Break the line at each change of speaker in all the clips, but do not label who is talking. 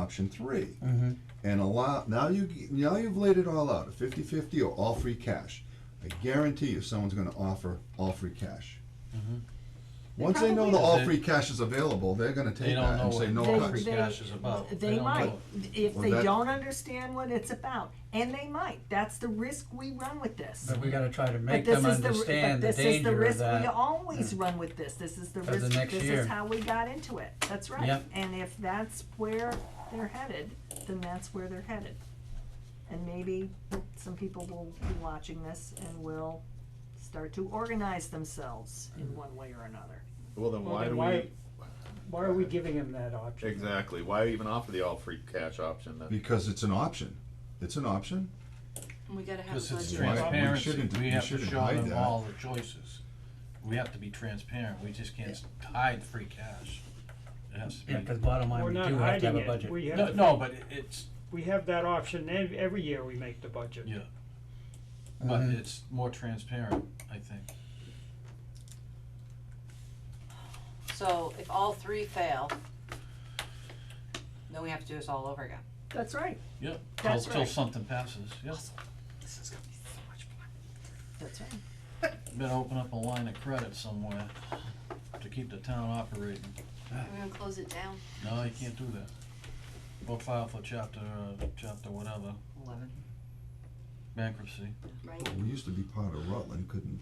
option three. And allow, now you, now you've laid it all out, a fifty-fifty or all free cash. I guarantee you, someone's gonna offer all free cash. Once they know the
probably
all
do.
free cash is available, they're gonna
They
take
don't
that and
know
say
what
no
all
cuts.
free cash is about. They
They
don't
might,
know.
if
Well,
they
that-
don't understand what it's about, and they might, that's the risk we run with this.
But we gotta try to
But
make
this
them
is the r-
understand the
But this is the
danger of
risk we
that.
always run with this, this is the
For the
risk,
next
this
year.
is how we got into it, that's right.
Yep.
And if that's where they're headed, then that's where they're headed. And maybe some people will be watching this and will start to organize themselves
Mm.
in one way or another.
Well, then
Well,
why
then
do
why-
we,
Why are we giving him that option?
exactly, why even offer the all free cash option then?
Because it's an option. It's an option.
And we gotta have a
Because it's
budget.
Why- we
transparency,
shouldn't-
we
we
have to
shouldn't
show
hide
them
that.
all the choices. We have to be transparent, we just can't s- hide free cash. It has to be.
Yeah, cause bottom line,
We're
we
not
do have to have
hiding
a
it, we
budget.
No,
have,
no, but it- it's,
we have that option, ev- every year we make the budget.
yeah. But
Mhm.
it's more transparent, I think.
So if all three fail, then we have to do this all over again.
That's right.
Yeah, till,
That's
till
right.
something passes, yeah.
This is gonna be so much fun.
That's right.
Better open up a line of credit somewhere to keep the town operating.
We're gonna close it down.
No, you can't do that. Or file for chapter, uh, chapter whatever,
Eleven,
bankruptcy.
right?
We used to be part of Rutland, couldn't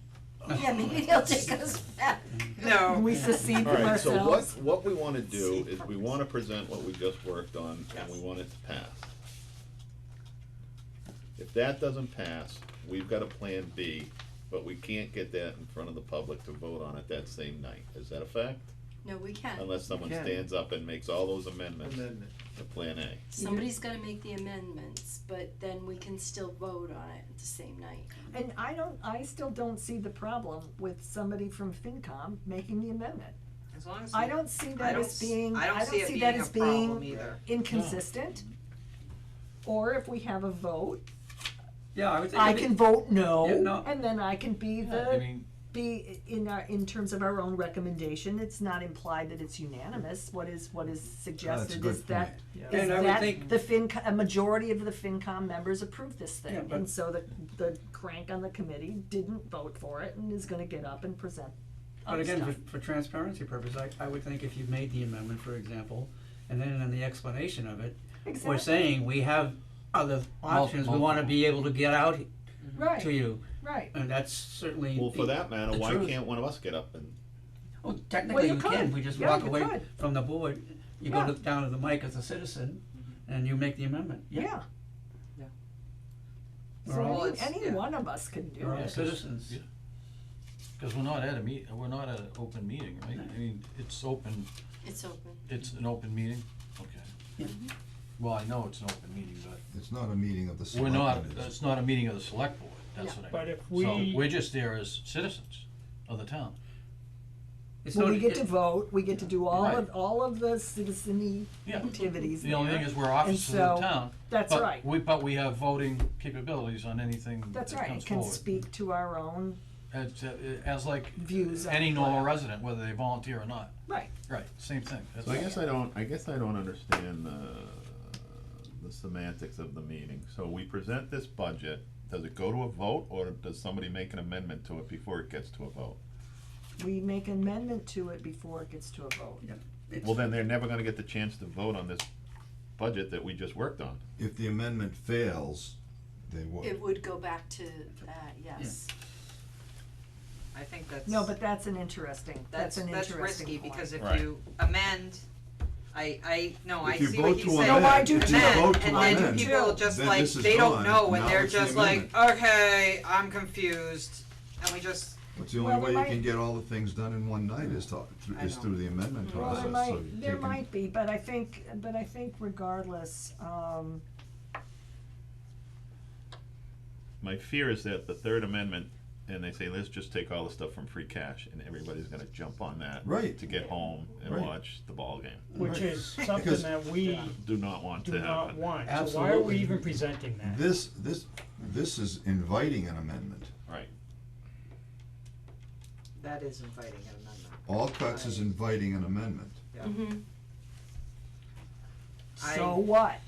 Yeah, maybe they'll take us back. No.
We secede from
Alright,
ourselves.
so what, what we wanna do
See,
is we wanna present what we just worked on and we
Yes.
want it to pass. If that doesn't pass, we've got a plan B, but we can't get that in front of the public to vote on it that same night. Is that a fact?
No, we can.
Unless someone
can.
stands up and makes all those amendments to Plan A.
Somebody's gotta make the amendments, but then we can still vote on it the same night.
And I don't, I still don't see the problem with somebody from FinCom making the amendment.
As long as.
I
we-
don't see
I
that
don't
as
s-
being,
I don't see
that
it being a
as
problem
being
either.
inconsistent. Or if we have a vote,
Yeah, I would think.
I
it'd be-
can vote
Yeah,
no,
no.
and then I can be
Yeah, I
the,
mean,
be in our, in terms of our own recommendation, it's not implied that it's unanimous, what is, what is suggested
good
is that,
point.
Yeah.
is
And I would
that
think-
the FinCom, a majority of the FinCom members approved this
Yeah,
thing,
but-
and so the, the crank on the committee didn't vote for it and is gonna get up and present
But
other
again,
stuff.
for, for transparency purposes, I, I would think if you made the amendment, for example, and then in the explanation of it, we're
Exactly.
saying we have other
Mul-
options, we wanna be able to get out to
Right,
you,
right.
and that's certainly.
Well, for
the-
that matter,
the
why
truth.
can't one of us get up and
Well, technically
you
you can,
could.
we just
Yeah,
walk
you
away
could.
from the board, you go
Yeah.
to, down to the mic as a citizen, and you make the amendment, yeah,
Yeah.
Yeah.
We're
So
all-
Well,
any,
it's-
any
yeah.
one of us can do
we're all
it.
citizens.
Yeah. cause we're not at a meet, we're not at an open meeting, right? I mean, it's open,
It's open.
it's an open meeting, okay.
Yeah.
Well, I know it's an open meeting, but
It's not a meeting of the
we're not,
selectmen.
it's not a meeting of the select board, that's
Yeah.
what I mean.
But if
So
we-
we're just there as citizens of the town.
It's
Well,
not-
we get
it-
to vote, we get to do all
Right.
of, all of the citizeny
Yeah.
activities
The only
there.
thing is we're officers of
so-
the town.
That's
but
right,
We, but we have voting capabilities on anything that
that's right,
comes
it can
forward.
speak to our own
As, as like
views on.
any normal resident, whether they volunteer or not,
Right,
right, same thing. That's-
So I guess I don't, I guess I don't understand the, the semantics of the meeting. So we present this budget, does it go to a vote, or does somebody make an amendment to it before it gets to a vote?
we make an amendment to it before it gets to a vote.
it's-
Well, then they're never gonna get the chance to vote on this budget that we just worked on.
If the amendment fails, they
It
would.
would go back to that, yes.
I think that's.
No, but that's an interesting, that's an interesting point.
risky, because if
Right.
you amend, I, I, no, I
If you
see what
vote
he's
to
saying.
amend- No, I do
too.
Amend,
If you
and
vote to
then
amend,
people just
then
like,
this is
they
gone.
don't know,
Now
and they're
it's the
just like, okay, I'm confused, and we just,
It's the
Well,
only way
there
you can
might-
get all the things done in one night is to, through-
I
is
know.
through the amendment
Well,
process,
there
so you
might, there
take 'em-
might be, but I think, but I think regardless, um,
My fear is that the third amendment, and they say, let's just take all the stuff from free cash, and everybody's gonna jump on that.
Right.
To get home and
Right.
watch the ball game.
Which
Right.
is something
Because-
that we
Do not want
do
to
not
happen.
want, so why are we
Absolutely.
even presenting that?
This, this, this is inviting an amendment.
Right.
that is inviting an amendment.
All cuts is inviting an amendment.
Yeah.
Mm-hmm.
I-
So what?